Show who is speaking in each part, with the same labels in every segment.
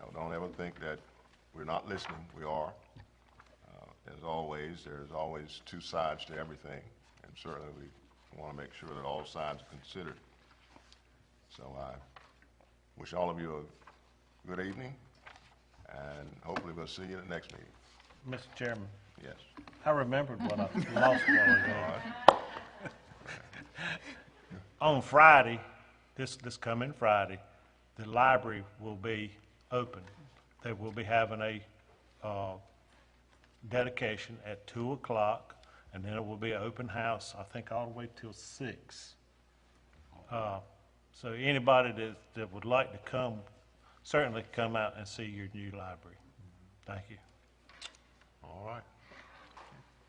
Speaker 1: don't, don't ever think that we're not listening, we are. Uh, As always, there's always two sides to everything, and certainly we want to make sure that all sides are considered. So I wish all of you a good evening, and hopefully we'll see you at the next meeting.
Speaker 2: Mr. Chairman,
Speaker 1: Yes.
Speaker 2: I remembered what I lost one ago. On Friday, this, this coming Friday, the library will be open. They will be having a, uh, dedication at two o'clock, and then it will be an open house, I think, all the way till six. Uh, So anybody that, that would like to come, certainly come out and see your new library. Thank you.
Speaker 1: All right.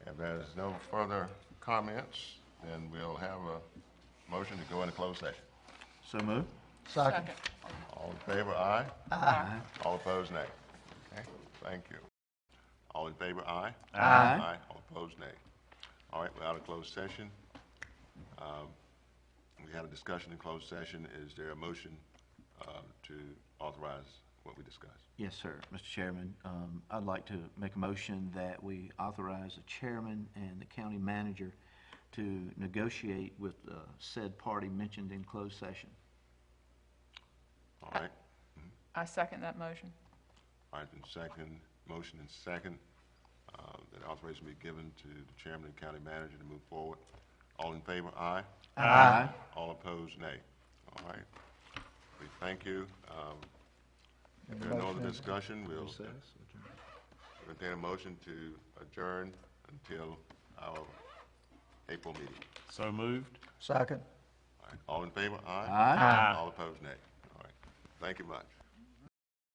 Speaker 1: If there's no further comments, then we'll have a motion to go into closed session.
Speaker 3: So moved.
Speaker 4: Second.
Speaker 1: All in favor, aye? Aye. All opposed, nay. Okay, thank you. All in favor, aye? Aye. All opposed, nay. All right, we're out of closed session. Um, We had a discussion in closed session. Is there a motion uh, to authorize what we discussed?
Speaker 3: Yes, sir. Mr. Chairman, um, I'd like to make a motion that we authorize the chairman and the county manager to negotiate with uh, said party mentioned in closed session.
Speaker 1: All right,
Speaker 4: I second that motion.
Speaker 1: all right, and second, motion and second, uh, that authorization be given to the chairman and county manager to move forward. All in favor, aye?
Speaker 3: Aye.
Speaker 1: All opposed, nay. All right. We thank you. Um, If there are no other discussion, we'll entertain a motion to adjourn until our April meeting.
Speaker 2: So moved.
Speaker 5: Second.
Speaker 1: All right. All in favor? Aye.
Speaker 3: Aye.
Speaker 1: All opposed, nay. All right. Thank you much.